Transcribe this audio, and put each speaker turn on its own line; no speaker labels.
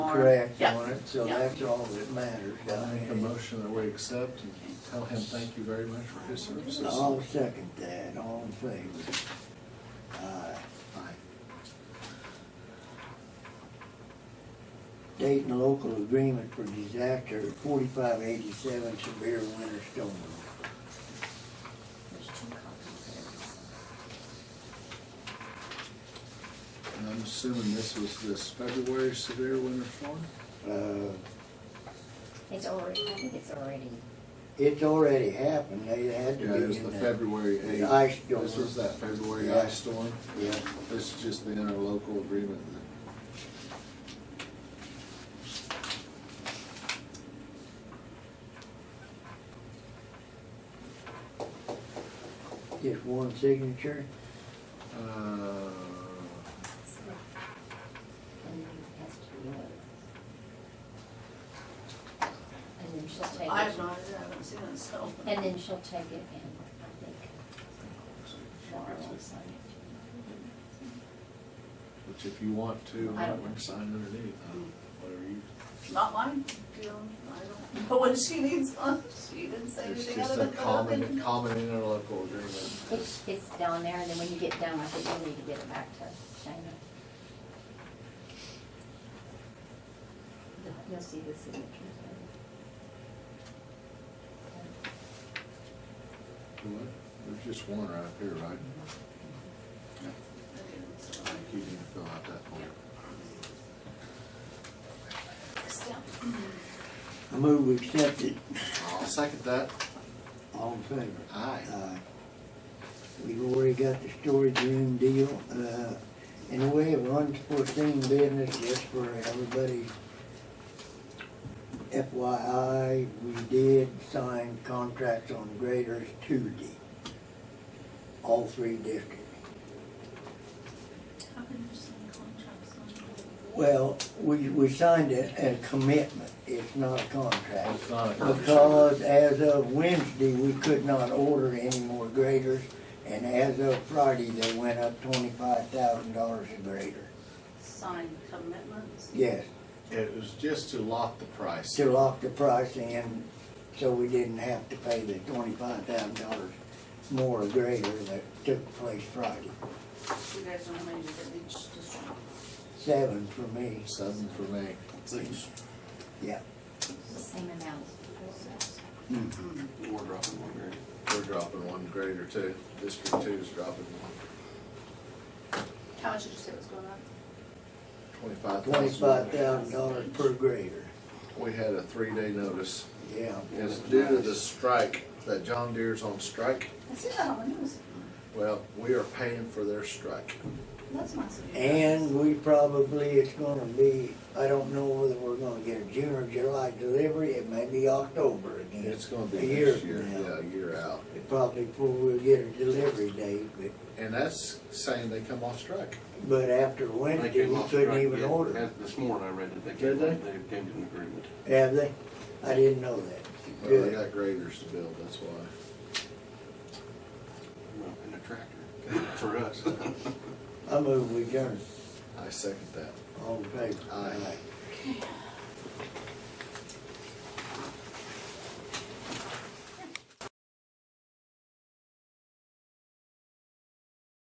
correct
Yeah.
on it, so
Yeah.
that's all that matters.
I
I
make a
mean,
motion that we accept and tell him thank you very much for his services.
I'll second that, all in favor. Aye.
Aye.
State and local agreement for disaster forty-five eighty-seven severe winter storm.
There's two copies.
And I'm assuming this was this February severe winter storm?
Uh,
It's already, I think it's already,
it's already happened, they had to
Yeah,
be
it was
in
the
the.
February eighth.
ice storm.
This was that February
Yeah.
ice storm.
Yeah,
This is just the interlocal agreement that
just one signature,
Uh,
and then it has to be yours. And then she'll take
I've
it,
not, I haven't seen it, so.
and then she'll take it and I think Laura will sign it.
Which if you want to,
I
I
don't
would sign underneath, huh? whatever you.
Not mine, you know, I don't know what she needs on, she didn't say
It's
anything
just
other
a
than.
common, common interlocal agreement.
It's, it's down there and then when you get done, I think you'll need to get it back to Shana. You'll see the signatures. later.
What? There's just one right up here, right? Like you need to fill out that form.
I move we accept it,
I'll second that.
all in favor.
Aye.
Uh, We've already got the storage room deal, uh, and we have unforeseen business, just for everybody. FYI, we did sign contracts on graders Tuesday, all three districts.
How can you sign contracts on?
Well, we, we signed a, a commitment, it's not a contract.
It's not a
Because as of Wednesday, we could not order any more graders, and as of Friday, they went up twenty-five thousand dollars a grader.
Sign commitments?
Yes,
It was just to lock the price.
to lock the price in, so we didn't have to pay the twenty-five thousand dollars more a grader that took place Friday.
You guys don't have any that each district.
Seven for me,
Seven for me. Six.
yeah.
The Same amount. as before.
We're dropping one grade. We're dropping one grade or two. District two's dropping one.
How much did you say was going on?
Twenty-five
Twenty-five thousand
thousand.
dollars per grader,
We had a three-day notice.
yeah.
It's due to the strike, that John Deere's on strike.
I see that on the news,
Well, we are paying for their strike.
that's nice of you. guys.
And we probably, it's gonna be, I don't know whether we're gonna get a June or July delivery, it may be October again.
It's gonna
A
be
year
next
from
year,
now.
yeah, a year out.
It Probably before we'll get a delivery date, but,
And that's saying they come off strike.
but after
They
Wednesday,
came
we
off
couldn't
strike
even
yet.
order.
As- This morning I read that they
Did
came,
they?
they came to an agreement.
Have they? I didn't know that.
Well, they
Good.
got graders to build, that's why.
Well, And a tractor for us.
I move we adjourn.
I second that.
All in favor?
Aye.
Aye.